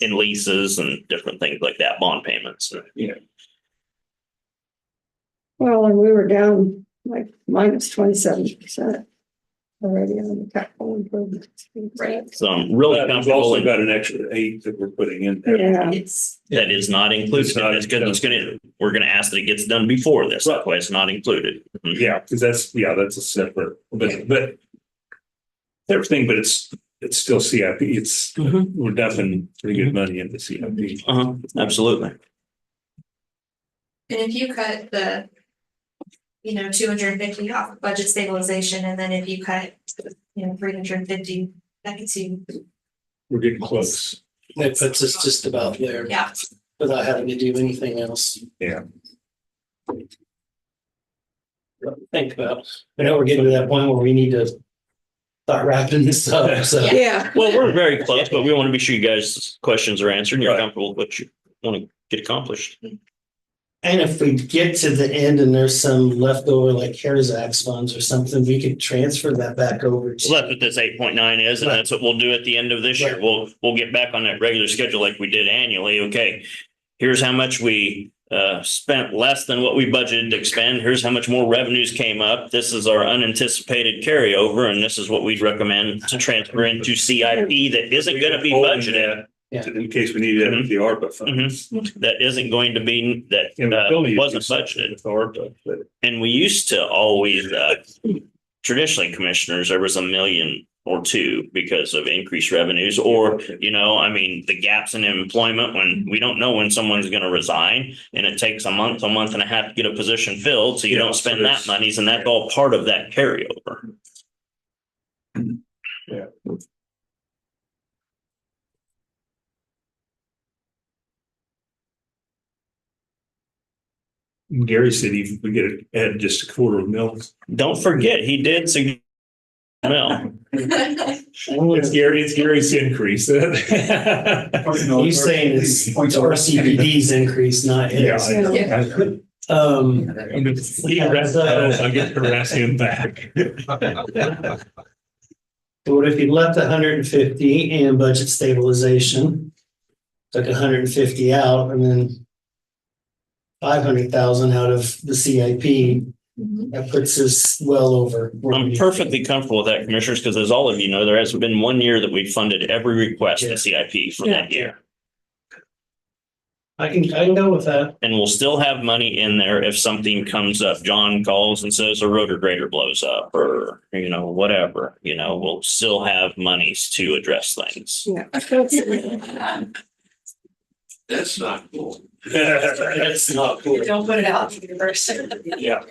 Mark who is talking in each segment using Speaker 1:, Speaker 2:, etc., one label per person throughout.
Speaker 1: in leases and different things like that, bond payments.
Speaker 2: Well, and we were down like minus twenty-seven percent already on the capital improvements.
Speaker 3: Right.
Speaker 1: So I'm really
Speaker 4: But We've
Speaker 1: comfortable.
Speaker 4: also
Speaker 1: and
Speaker 4: got an extra eight that we're putting in there.
Speaker 2: Yeah,
Speaker 3: It's,
Speaker 1: That is not included.
Speaker 4: It's not
Speaker 1: That's good. It's gonna, we're gonna ask that it gets done before this. That's why it's not included. Mhm.
Speaker 4: Yeah, because that's, yeah, that's a separate, but, but everything, but it's, it's still CIP. It's,
Speaker 1: Mhm.
Speaker 4: we're dumping pretty good money into CIP.
Speaker 1: Uh-huh, absolutely.
Speaker 3: and if you cut the. You know, two hundred and fifty off of budget stabilization, and then if you cut, you know, three hundred and fifty, that gets you,
Speaker 4: We're getting close.
Speaker 5: That puts us just about there
Speaker 3: yeah.
Speaker 5: without having to do anything else.
Speaker 4: Yeah.
Speaker 5: to Think about, I know we're getting to that point where we need to start wrapping this up, so.
Speaker 2: yeah,
Speaker 1: Well, we're very close, but we want to be sure you guys' questions are answered and you're
Speaker 4: Right.
Speaker 1: comfortable with what you want to get accomplished.
Speaker 5: And if we get to the end and there's some leftover like CARES Act funds or something, we could transfer that back over
Speaker 1: So that's
Speaker 5: to.
Speaker 1: what this eight point nine is, and
Speaker 5: Right.
Speaker 1: that's what we'll do at the end of this year.
Speaker 5: Right.
Speaker 1: We'll, we'll get back on that regular schedule like we did annually. Okay. Here's how much we uh spent less than what we budgeted to expend. Here's how much more revenues came up. This is our unanticipated carryover, and this is what we'd recommend to transfer into CIP that isn't gonna be budgeted. Mm-hmm.
Speaker 5: Yeah.
Speaker 4: In case we need it with the ARPA funds.
Speaker 1: That isn't going to be, that
Speaker 4: And we still
Speaker 1: uh,
Speaker 4: need to do
Speaker 1: wasn't
Speaker 4: something
Speaker 1: budgeted.
Speaker 4: with ARPA, but
Speaker 1: And we used to always, uh, traditionally commissioners, there was a million or two because of increased revenues or, you know, I mean, the gaps in employment when we don't know when someone's going to resign and it takes a month, a month and a half to get a position filled. So you
Speaker 4: Yeah,
Speaker 1: don't
Speaker 4: so
Speaker 1: spend that
Speaker 4: it's-
Speaker 1: monies and that's all part of that carryover.
Speaker 4: Gary said he we get it at just a quarter of a mil.
Speaker 1: Don't forget, he did suggest well,
Speaker 4: Mm-hmm. It's Gary, it's Gary's increase.
Speaker 5: You saying it's our CBD's increase, not his.
Speaker 4: Yeah.
Speaker 5: Um,
Speaker 4: I'm just- he arrests us, I get to arrest him back.
Speaker 5: what if you left hundred and fifty in budget stabilization? Took hundred and fifty out and then five hundred thousand out of the CIP, that puts us well over. where
Speaker 1: I'm
Speaker 5: we-
Speaker 1: perfectly comfortable with that commissioners, because as all of you know, there hasn't been one year that we funded every request
Speaker 5: Yeah.
Speaker 1: to CIP for that year.
Speaker 5: I can, I can go with that.
Speaker 1: And we'll still have money in there if something comes up. John calls and says a rotor grader blows up or, you know, whatever, you know, we'll still have monies to address things.
Speaker 2: yeah.
Speaker 3: Um,
Speaker 6: That's not cool.
Speaker 5: That's not cool.
Speaker 3: Don't put it out to the universe.
Speaker 4: Yeah.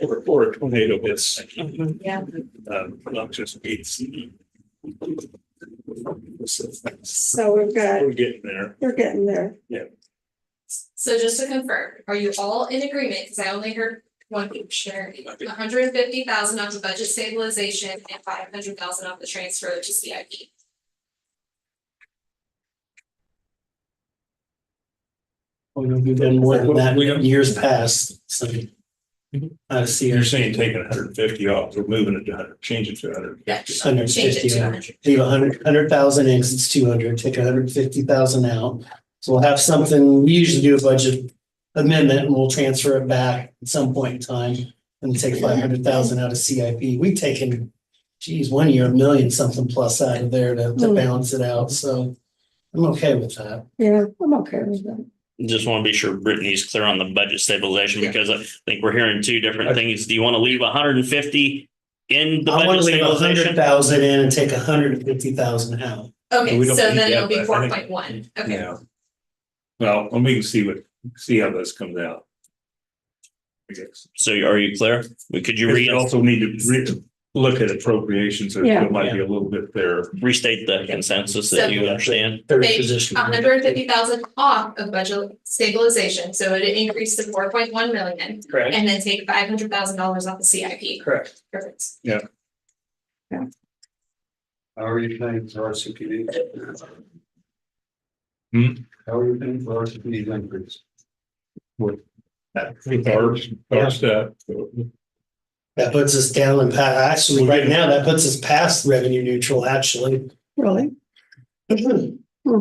Speaker 4: Or, or a tornado hits,
Speaker 3: Yeah.
Speaker 4: um, not just it's.
Speaker 2: So we've got,
Speaker 4: We're getting there.
Speaker 2: we're getting there.
Speaker 3: So just to confirm, are you all in agreement? Because I only heard one commissioner, hundred and fifty thousand off the budget stabilization and five hundred thousand off the transfer to CIP.
Speaker 5: We've done more than that
Speaker 4: We don't- Mm-hmm.
Speaker 5: in years past, so. I see
Speaker 4: You're
Speaker 5: your
Speaker 4: saying taking hundred and fifty off, we're moving it to hundred, changing to hundred.
Speaker 5: hundred
Speaker 3: Change it
Speaker 5: fifty,
Speaker 3: to hundred.
Speaker 5: leave a hundred, hundred thousand in, 'cause it's two hundred, take a hundred fifty thousand out. So we'll have something, we usually do a budget amendment and we'll transfer it back at some point in time. And take five hundred thousand out of CIP, we've taken, geez, one year, a million something plus out of there to, to
Speaker 2: Hmm.
Speaker 5: balance it out, so. I'm okay with that.
Speaker 2: Yeah, I'm okay with that.
Speaker 1: Just want to be sure Brittany's clear on the budget stabilization because I think we're hearing two different things. Do you want to leave hundred and fifty in the
Speaker 5: I want
Speaker 1: budget
Speaker 5: to leave a hundred
Speaker 1: stabilization?
Speaker 5: thousand in and take a hundred and fifty thousand out.
Speaker 3: Okay,
Speaker 4: We
Speaker 3: so
Speaker 4: don't need that,
Speaker 3: then it'll be
Speaker 4: but I
Speaker 3: four
Speaker 4: think-
Speaker 3: point one, okay.
Speaker 4: Yeah. Well, and we can see what, see how this comes out. I guess.
Speaker 1: So are you clear? Could you
Speaker 4: We
Speaker 1: re-
Speaker 4: also need to re- look at appropriations, so
Speaker 2: Yeah.
Speaker 4: it might be a little bit there.
Speaker 1: restate the consensus that you understand?
Speaker 5: Third
Speaker 3: Make
Speaker 5: position.
Speaker 3: hundred and fifty thousand off of budget stabilization, so it increased to four point one million.
Speaker 5: Correct,
Speaker 3: And then take five hundred thousand dollars off the CIP.
Speaker 5: correct.
Speaker 3: Perfect.
Speaker 6: How are you paying for our CPD?
Speaker 4: Hmm?
Speaker 6: How are you paying for our CPD increase?
Speaker 4: With our,
Speaker 5: Yeah.
Speaker 4: our stuff.
Speaker 5: That puts us down and pa- actually, right now, that puts us past revenue neutral, actually.
Speaker 2: Really?
Speaker 5: Well,